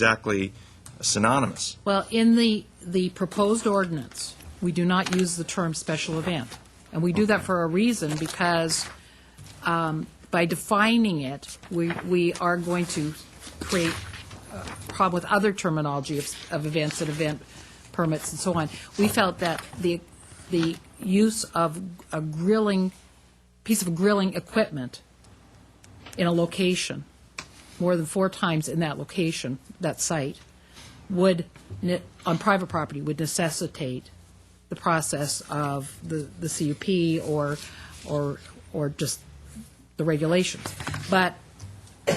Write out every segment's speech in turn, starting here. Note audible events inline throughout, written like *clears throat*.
exactly synonymous. Well, in the, the proposed ordinance, we do not use the term special event. And we do that for a reason, because um, by defining it, we, we are going to create a problem with other terminology of, of events and event permits and so on. We felt that the, the use of a grilling, piece of grilling equipment in a location, more than four times in that location, that site, would, ne- on private property, would necessitate the process of the, the CUP or, or, or just the regulations. But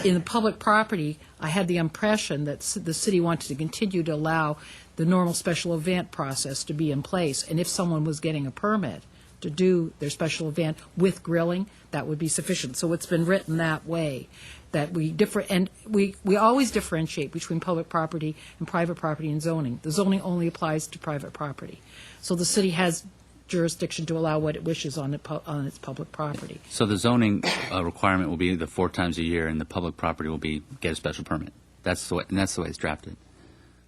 in the public property, I had the impression that ci- the city wanted to continue to allow the normal special event process to be in place. And if someone was getting a permit to do their special event with grilling, that would be sufficient. So it's been written that way, that we differ, and we, we always differentiate between public property and private property and zoning. The zoning only applies to private property. So the city has jurisdiction to allow what it wishes on, it, pu- on its public property. So the zoning uh, requirement will be the four times a year, and the public property will be get a special permit. That's the way, and that's the way it's drafted.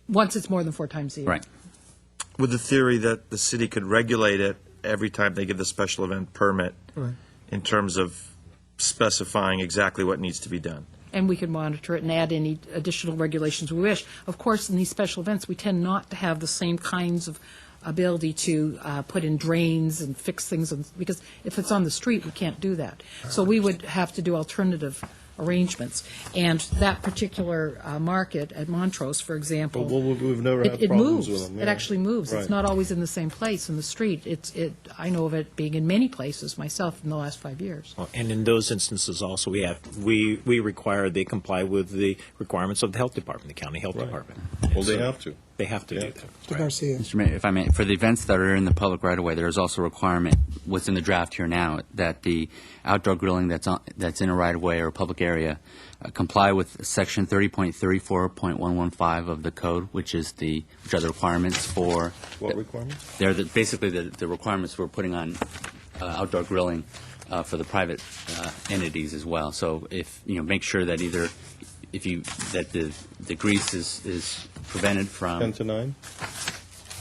Once it's more than four times a year. Right. With the theory that the city could regulate it every time they give the special event permit in terms of specifying exactly what needs to be done. and we can monitor it and add any additional regulations we wish. Of course, in these special events, we tend not to have the same kinds of ability to uh, put in drains and fix things, and- because if it's on the street, we can't do that. So we would have to do alternative arrangements. And that particular uh, market at Montrose, for example. But we'll- we've never it- had problems It with moves. them, It yeah. actually moves. It's Right. not always in the same place in the street. It's, it, I know of it being in many places myself in the last five years. Uh, And in those instances also, we have, we, we require they comply with the requirements of the health department, the county health department. Well, they So have to. They have to They do have to. that. Mr. Garcia. Mr. Mayor, if I may, for the events that are in the public right of way, there is also a requirement what's in the draft here now that the outdoor grilling that's on, that's in a right of way or a public area uh, comply with section 30.34.115 of the code, which is the which are the requirements for What requirements? They're the, basically the, the requirements we're putting on uh, outdoor grilling uh, for the private uh, entities as well. So if, you know, make sure that either, if you, that the, the grease is, is prevented Ten from. to nine?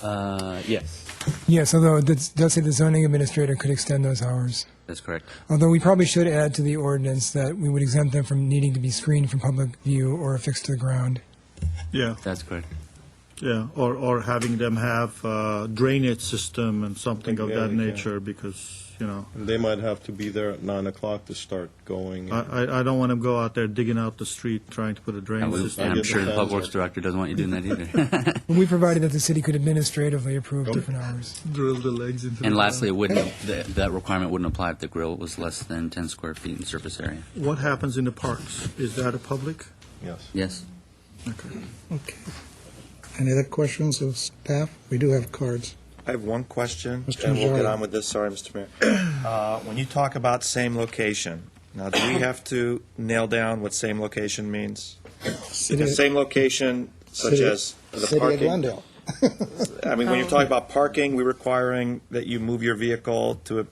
Uh, Yes, Yes, although it does does say the zoning administrator could extend those hours. that's correct. Although we probably should add to the ordinance that we would exempt them from needing to be screened from public view or affixed to the ground. Yeah, That's correct. yeah, or, or having them have uh, drainage system and something of Yeah, that yeah. nature, because, you know, They might have to be there at nine o'clock to start going. I, I- I don't want them go out there digging out the street trying to put a And drainage we- system. and I'm get sure the the public plans works up. director doesn't want you doing that either. *laughs* But we provided that the city could administratively approve different hours. Drill the legs into And lastly, it wouldn't, that that requirement wouldn't apply if the grill was less than 10 square feet in surface area. What happens in the parks? Is that a public? Yes. Yes? Okay. Any other questions of staff? We do have cards. I have one question, Mr. and we'll get Najarian. on with this, sorry, Mr. Mayor. *clears throat* Uh, When you talk about same location, now, do we have to nail down what same location means? City- Because same location such City- as the City of parking, Glendale. *laughs* I mean, when you're Um. talking about parking, we're requiring that you move your vehicle to a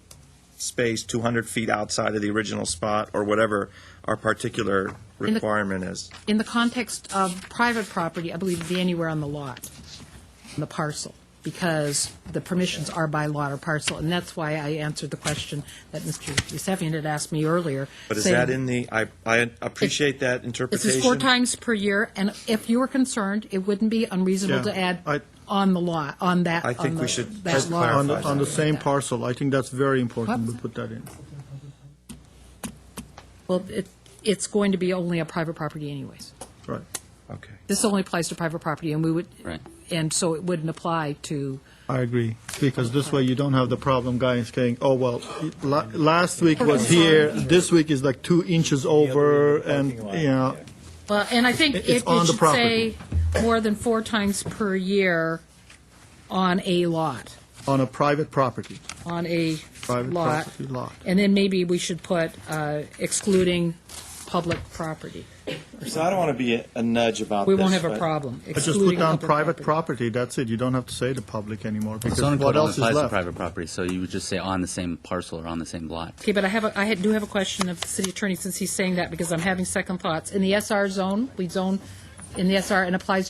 space 200 feet outside of the original spot, or whatever our particular the- requirement is. In the context of private property, I believe it'd be anywhere on the lot, on the parcel, because the permissions are by lot or parcel, and that's why I answered the question that Mr. Yusefian had asked me earlier. But is saying- that in the, I I appreciate that This interpretation. is four times per year, and if you were concerned, it wouldn't be unreasonable Yeah, to add I- on the lot, on that, I think on we the- should that just lot. clarify On, the- on the that. same parcel, I think that's very important, we put that in. Well, it, it's going to be only a private property anyways. Right. Okay. This only applies to private property, and we would, Right. and so it wouldn't apply to I agree, because this way you don't have the problem guys saying, oh, well, la- last week was here, this week is like two inches over, and, you know, Well, and I think It- it it's it on the should say property. more than four times per year on a lot, on a private property, on a private lot. property lot. And then maybe we should put uh, excluding public property. So I don't want to be a- a nudge about We this. won't have a but- problem But just put excluding down public private property. property, that's it, you don't have to say the public anymore, The because zoning what code only else is applies to left? private property, so you would just say on the same parcel or on the same lot. Okay, but I have, a- I had- do have a question of the city attorney, since he's saying that, because I'm having second thoughts. In the SR zone, we zone in the SR and applies